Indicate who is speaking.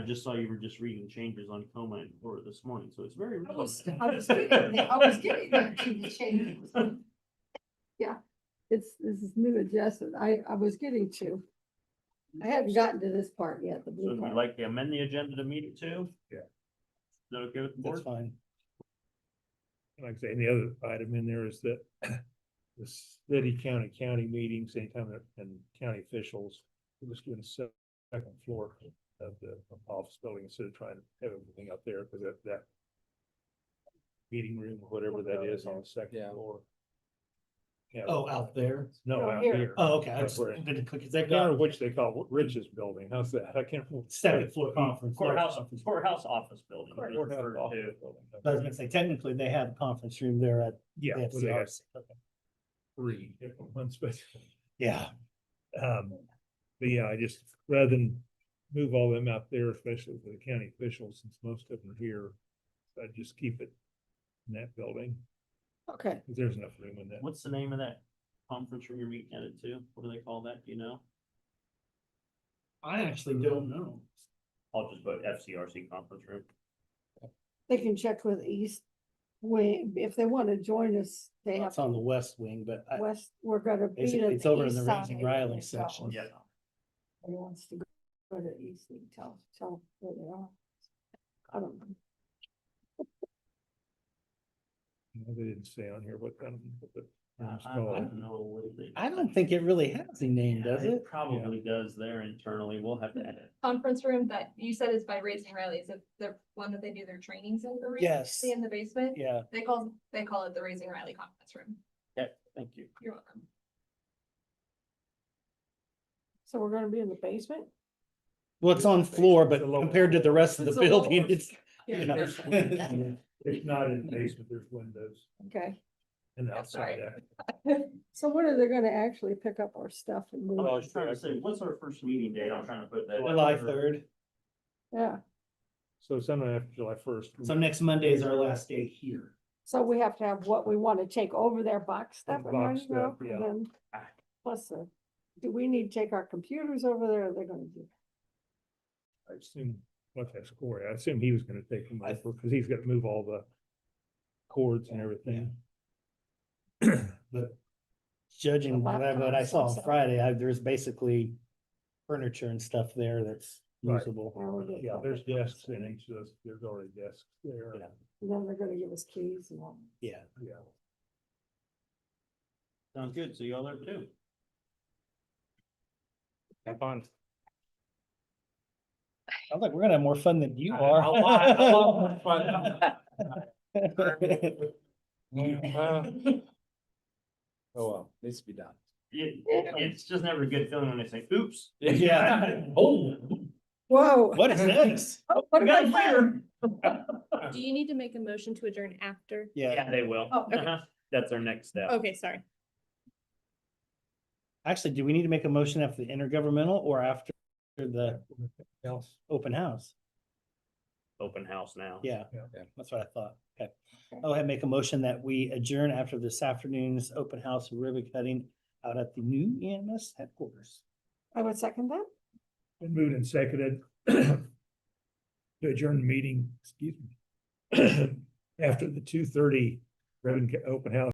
Speaker 1: I just saw you were just reading changes on coma and Florida this morning, so it's very.
Speaker 2: I was,
Speaker 1: relevant.
Speaker 2: I was getting there, I was getting there to the changes.
Speaker 3: It's, this is new adjustment. I, I was getting to. I hadn't gotten to this part yet, the
Speaker 1: So
Speaker 3: blue
Speaker 1: if you'd
Speaker 3: part.
Speaker 1: like to amend the agenda to meet it too?
Speaker 4: Yeah.
Speaker 1: Is that okay with the
Speaker 4: That's
Speaker 1: board?
Speaker 4: fine. And Like I say, and the other item in there is that the city county county meetings, anytime that, and county officials, we're just doing the second floor of the office building instead of trying to have everything up there, because that, that meeting room, or whatever that is on the second
Speaker 5: Yeah.
Speaker 4: floor. Yeah,
Speaker 6: Oh, out there.
Speaker 4: No,
Speaker 3: Oh,
Speaker 4: out
Speaker 3: here.
Speaker 4: here.
Speaker 6: Oh, okay. I just
Speaker 4: Right.
Speaker 6: didn't click.
Speaker 4: I
Speaker 6: They've
Speaker 4: can't remember
Speaker 6: got
Speaker 4: which they call it, Rich's building, how's that? I can't. remember.
Speaker 6: second floor conference.
Speaker 1: Courthouse,
Speaker 6: room.
Speaker 1: courthouse office building.
Speaker 4: Courthouse
Speaker 1: is referred
Speaker 4: office
Speaker 1: to.
Speaker 4: building.
Speaker 6: But I was gonna say, technically, they have a conference room there at
Speaker 4: Yeah.
Speaker 6: the
Speaker 4: well, they have
Speaker 6: FCRC. Okay.
Speaker 4: Three, one special.
Speaker 6: Yeah,
Speaker 4: Um, but yeah, I just, rather than move all them out there, especially for the county officials, since most of them are here. I just keep it in that building,
Speaker 3: Okay,
Speaker 4: 'cause there's enough room in that.
Speaker 1: What's the name of that conference room you're meeting at it to? What do they call that? Do you know?
Speaker 6: I actually don't know.
Speaker 1: I'll just put FCRC conference room.
Speaker 3: they can check with East. Wing if they want to join us, they have
Speaker 6: It's on the west wing, but I,
Speaker 3: west, we're gonna be
Speaker 6: Basically,
Speaker 3: at
Speaker 6: Uh, it's
Speaker 3: the
Speaker 6: over in
Speaker 3: east
Speaker 6: the Ramsey
Speaker 3: side
Speaker 6: Riley
Speaker 3: when it
Speaker 6: section.
Speaker 3: goes.
Speaker 1: Yeah.
Speaker 3: Who wants to go to east, you can tell, tell where they are. I don't know.
Speaker 4: No, They didn't say on here what, kind of- what the
Speaker 1: I
Speaker 4: room's
Speaker 1: Uh, I don't
Speaker 4: called.
Speaker 1: know what they.
Speaker 6: I don't think it really has a name, does it?
Speaker 1: Probably does there internally. We'll have to edit.
Speaker 7: conference room that you said is by Raising Riley's, if the one that they do their trainings in. or
Speaker 6: Yes.
Speaker 7: see In the basement,
Speaker 6: Yeah,
Speaker 7: they call, they call it the Raising Riley Conference Room.
Speaker 1: Thank you.
Speaker 7: You're welcome.
Speaker 3: So we're gonna be in the basement?
Speaker 6: well, it's on floor, but
Speaker 4: It's a lower-
Speaker 6: compared to the rest of the
Speaker 3: It's a lower-
Speaker 6: building, it's,
Speaker 3: Yeah.
Speaker 6: you know.
Speaker 4: It's not in the basement, there's windows
Speaker 3: Okay,
Speaker 4: and
Speaker 7: That's
Speaker 4: outside.
Speaker 7: right.
Speaker 4: that.
Speaker 3: so when are they gonna actually pick up our stuff and
Speaker 1: Oh, I
Speaker 3: move? it?
Speaker 1: was trying to say, what's our first meeting date? I'm trying to put that.
Speaker 6: July third.
Speaker 3: Yeah,
Speaker 4: So sometime after July first.
Speaker 6: So next Monday is our last day here.
Speaker 3: so we have to have what we want to take over their box stuff. and
Speaker 4: Box
Speaker 3: ready to go,
Speaker 4: stuff, yeah.
Speaker 3: and then Plus, the- do we need to take our computers over there? or They're gonna do.
Speaker 4: I assume, what's that score? I assume he was gonna take them
Speaker 6: I-
Speaker 4: over, cause he's got to move all the cords and everything.
Speaker 3: The
Speaker 6: Judging by what I
Speaker 3: laptops
Speaker 6: saw on
Speaker 3: also.
Speaker 6: Friday, I, there's basically furniture and stuff there that's
Speaker 4: Right.
Speaker 6: usable.
Speaker 3: Oh,
Speaker 4: Yeah, there's desks in each of those, there's already desks there.
Speaker 6: Yeah.
Speaker 3: And then they're gonna give us keys and all.
Speaker 6: Yeah.
Speaker 4: Yeah.
Speaker 1: Sounds good. So y'all are too.
Speaker 6: I was like, we're gonna have more fun than you are.
Speaker 5: Oh, well, needs to be done.
Speaker 1: It, it's just never a good feeling when they say, oops.
Speaker 6: Yeah.
Speaker 1: Oh.
Speaker 3: Whoa.
Speaker 6: What is next?
Speaker 3: What about that?
Speaker 8: Do you need to make a motion to adjourn after?
Speaker 6: Yeah,
Speaker 1: Yeah, they will.
Speaker 8: Oh, okay.
Speaker 1: Uh-huh. That's our next step.
Speaker 8: Okay, sorry.
Speaker 6: actually, do we need to make a motion after the intergovernmental or after the
Speaker 4: Else,
Speaker 6: open house?
Speaker 1: Open house now.
Speaker 6: Yeah,
Speaker 4: Yeah.
Speaker 5: Yeah.
Speaker 6: that's what I thought. Okay. I'll have make a motion that we adjourn after this afternoon's open house ribbon cutting out at the new EMS headquarters.
Speaker 3: I would second that.
Speaker 4: been moved and seconded. To adjourn the meeting, excuse me. After the two thirty ribbon ca- open house.